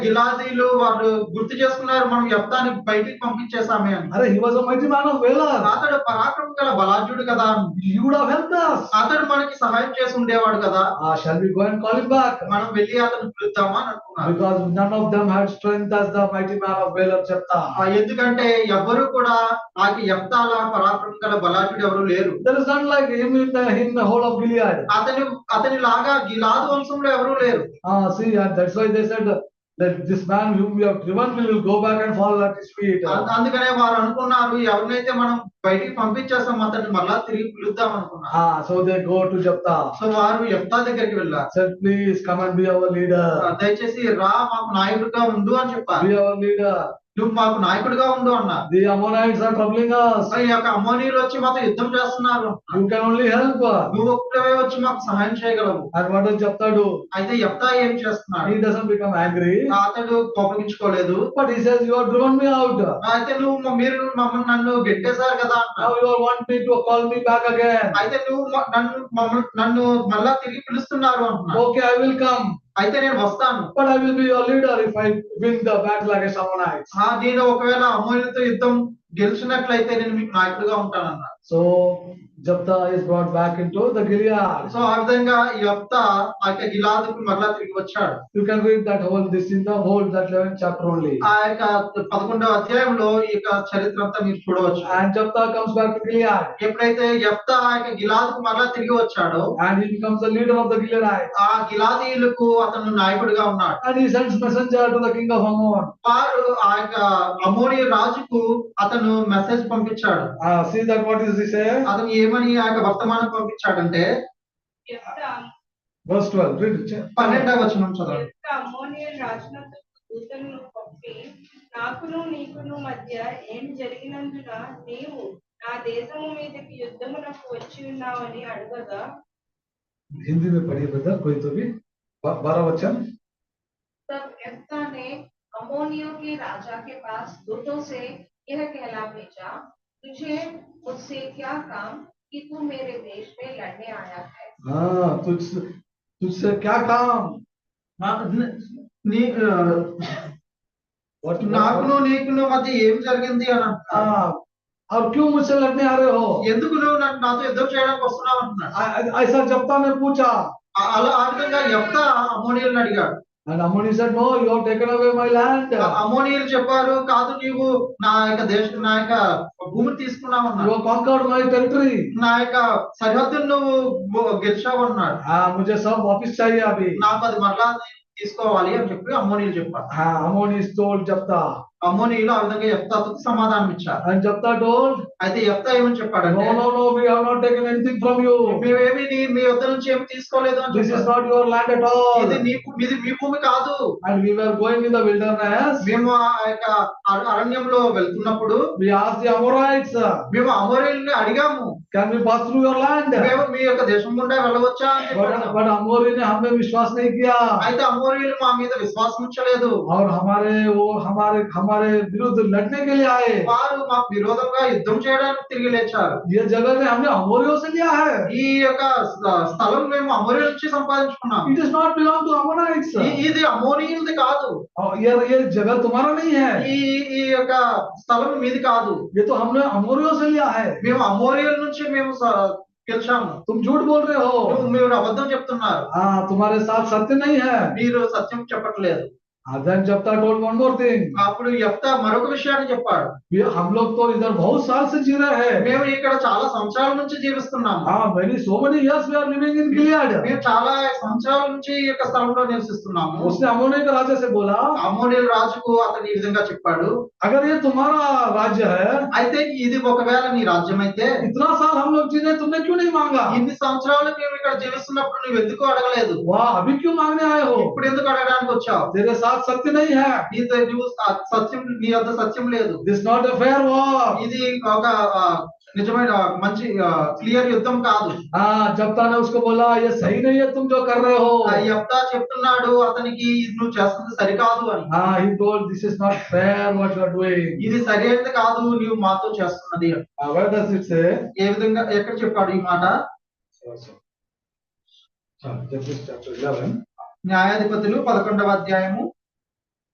గిలాదీలు వాళ్ళు గుర్తు చేసుకున్నారు మనం యప్తాని బయటికి పంపించేసామే అని अरे he was a mighty man of valor. అతడు పరాక్రమం గల బలాఢ్యుడు కదా He would have helped us. అతడు మనకి సహాయం చేసి ఉండేవాడు కదా Ah, shall we go and call him back? మనం వెళ్ళి అతను పిలుద్దామా అని అనుకున్నారు Because none of them had strength as the mighty man of valor ఆ, Jephthah. ఎందుకంటే ఎవరు కూడా నాకు యప్తాల పరాక్రమం గల బలాఢ్యుడు ఎవరు లేరు There is none like him in the, in the whole of Gilead. అతని అతని లాగా గిలాదు వంశంలో ఎవరూ లేరు Ah, see, and that's why they said that this man whom we have driven will go back and fall at his feet. అం- అందుకనే వారు అనుకున్నారు ఎవరినైతే మనం బయటికి పంపించేస్తాం అతన్ని మళ్ళా తిరిగి పిలుద్దాం అనుకున్నారు Ah, so they go to Jephthah. So వారు యప్తా దగ్గరికి వెళ్ళారు Said, please come and be our ఆ, leader. దయచేసి రా మాకు నాయకుడిగా ఉండు అని చెప్పారు Be our leader. నువ్వు మాకు నాయకుడిగా ఉండు అన్నా The Ammonites are troubling us. అసలు ఈ యొక్క అమోనీయులు వచ్చి మాతో యుద్ధం చేస్తున్నారు You can only help. నువ్వు ఒక్కడే వచ్చి మాకు సహాయం చేయగలవు And what does Jephthah do? అయితే ఎప్తా ఏం చేస్తున్నాడు He doesn't become angry. అతడు కోపగించుకోలేదు But he says, you have driven me out. అయితే నువ్వు మ- మీరు మమ్మల్ని నన్ను గెట్టేశారు కదా అన్నాడు. Now you want me to call me back again. అయితే నువ్వు మ- నన్ను మమ్మల్ని నన్ను మళ్ళా తిరిగి పిలుస్తున్నారు అంటున్నాడు Okay, I will come. అయితే నేను వస్తాను But I will be your leader if I win the battle against Ammonites. ఆ నేను ఒకవేళ అమోనీయులతో యుద్ధం గెలిచినట్లయితే నేను మీకు నాయకుడిగా ఉంటానన్నాడు So Jephthah is brought back into the Gilead. So ఆ విధంగా ఈ యొక్క ఆ యొక్క గిలాదుకు మరలా తిరిగి వచ్చాడు You can read that whole, this in the whole, that 11th chapter only. ఆ యొక్క పదకొండవ అధ్యాయంలో ఈ యొక్క చరిత్ర అంతా మీరు చూడవచ్చు And Jephthah comes back to Gilead. ఎప్పుడైతే యెఫ్తా ఆ యొక్క గిలాదుకు మరలా తిరిగి వచ్చాడో And he becomes the leader of the Gileadites. ఆ గిలాదీయులకు అతను నాయకుడిగా ఉన్నాడు And he sends messenger to the king of Ammon. వారు ఆ యొక్క అమోరి రాజుకు అతను మెసేజ్ పంపించాడు Ah, see that what is he say? అతను ఏమని ఆ యొక్క వర్తమానం పంపించాడంటే యొక్క- Verse 12, read it. పన్నెండవ వచనం చదవండి యొక్క అమ్మోనియన్ రాజునకు దూతను పంపి నాకును నీకును మధ్య ఏం జరిగినందున నీవు నా దేశము మీదకి యుద్ధమునకు వచ్చి ఉన్నావని అడగగా हिंदी में पढ़िए ब्रदर कोई तो भी ब- बारह वचन तब एस्था ने अमोनियों के राजा के पास दूतों से यह कहला भेजा तुझे मुझसे क्या काम कि तू मेरे देश में लड़ने आया है हाँ तुझ तुझसे क्या काम ఆ, న- నీ ఆ, What- నాకును నీకును మధ్య ఏం జరిగింది అని అంటున్నాడు. हाँ, और क्यों मुझसे लड़ने आ रहे हो ఎందుకు నువ్వు నన్ను నాతో యుద్ధం చేయడానికి వస్తున్నావు అంటున్నాడు आ- आ- ऐसा जप्ता ने पूछा ఆ- అలా ఆ విధంగా యెఫ్తా అమోనీయులను అడిగాడు एंड अमोनी said no you have taken away my land ఆ you అమోనీయులు చెప్పారు కాదు నీవు నా యొక్క దేశ నా యొక్క భూమిని తీసుకున్నావు అన్నాడు have conquered my territory నా యొక్క సరిహద్దును నువ్వు గొ- గెలిచావన్నాడు हाँ मुझे सब वापस चाहिए अभी నాకు అది మరలా తీసుకోవాలి అని చెప్పి అమ్మోనీలు చెప్పారు हाँ अमोनी is told जप्ता అమ్మోనీలు ఆ విధంగా ఎఫ్తాకు సమాధానం ఇచ్చారు and jephtha told అయితే ఎఫ్తా ఏమని చెప్పాడంటే no no no we have not taken anything from you మేమేమి నీ- మీ వద్ద నుంచి ఏమి తీసుకోలేదు అని this is చెప్పారు. not your land at all ఇది నీ మీది మీ భూమి కాదు and we were going in the wilderness మేము ఆ యొక్క అర- అరణ్యంలో వెళ్తున్నప్పుడు We asked the Amorites, uh, మేము అమోరీల్ని అడిగాము can we pass through your land? మేము మీ యొక్క దేశం గుండా వెళ్ళవచ్చా అని But, చెప్పారు. but अमोरी ने हमें विश्वास नहीं किया అయితే అమోరీలు మా మీద విశ్వాసం ఉంచలేదు और हमारे वो हमारे हमारे विरुद्ध लड़ने के लिए आए వారు మాకు విరోధంగా యుద్ధం చేయడానికి తిరిగి లేచారు ये जगह ने हमने अमोरियों से लिया है ఈ యొక్క స్థ- స్థలం మేము అమోరీ నుంచి సంపాదించుకున్నాం it is not belong to Ammonites ఈ- ఇది అమోనీయులది కాదు ये ये जगह तुम्हारा नहीं है ఈ ఈ యొక్క స్థలం మీది కాదు ये तो हमने अमोरियों से लिया है మేము అమోరియల్ నుంచి మేము స- గెలిచాము तुम झूठ बोल रहे हो నువ్వు- మీరు అబద్ధం చెప్తున్నారు हाँ तुम्हारे साथ सत्य नहीं है మీరు సత్యం చెప్పట్లేదు देन जब तक टोल्ड वन मोर थिंग అప్పుడు ఎఫ్త మరొక విషయాన్ని చెప్పాడు हम लोग तो इधर बहुत साल से जी रहे हैं మేము ఇక్కడ చాలా సంవత్సరాల నుంచి జీవిస్తున్నాము हाँ many so many years we are living in Gilead మేము చాలా సంవత్సరాల నుంచి ఈ యొక్క స్థలంలో నివసిస్తున్నాము उसने अमोने के राजा से बोला అమోరియల్ రాజుకు అతను ఈ విధంగా చెప్పాడు अगर ये तुम्हारा राज्य है అయితే ఇది ఒకవేళ నీ రాజ్యం అయితే इतना साल हम लोग जीने तुमने क्यों नहीं मांगा ఇన్ని సంవత్సరాలు మేము ఇక్కడ జీవిస్తున్నప్పుడు నువ్వు ఎందుకు అడగలేదు वाह अभी क्यों मांगने आए हो ఇప్పుడు ఎందుకు అడగడానికి వచ్చావు तेरे साथ सत्य नहीं है నీతో నువ్వు స- సత్యం నీ వద్ద సత్యం లేదు this not a fair war ఇది ఒక ఆ, నిజమైన మంచి క్లియర్ యుద్ధం కాదు हाँ जप्ता ने उसको बोला ये सही नहीं है तुम जो कर रहे ఆ हो యెఫ్తా చెప్తున్నాడు అతనికి ఇది నువ్వు చేస్తుంది సరికాదు అని हाँ he told this is not fair what you are doing ఇది సరైనది కాదు నీవు మాతో చేస్తున్నది అని. वेयर डस इट से ఏ విధంగా ఎక్కడ చెప్పాడు ఈ మాట जस्टिस चैप्टर 11 న్యాయాధిపతులు పదకొండవ అధ్యాయము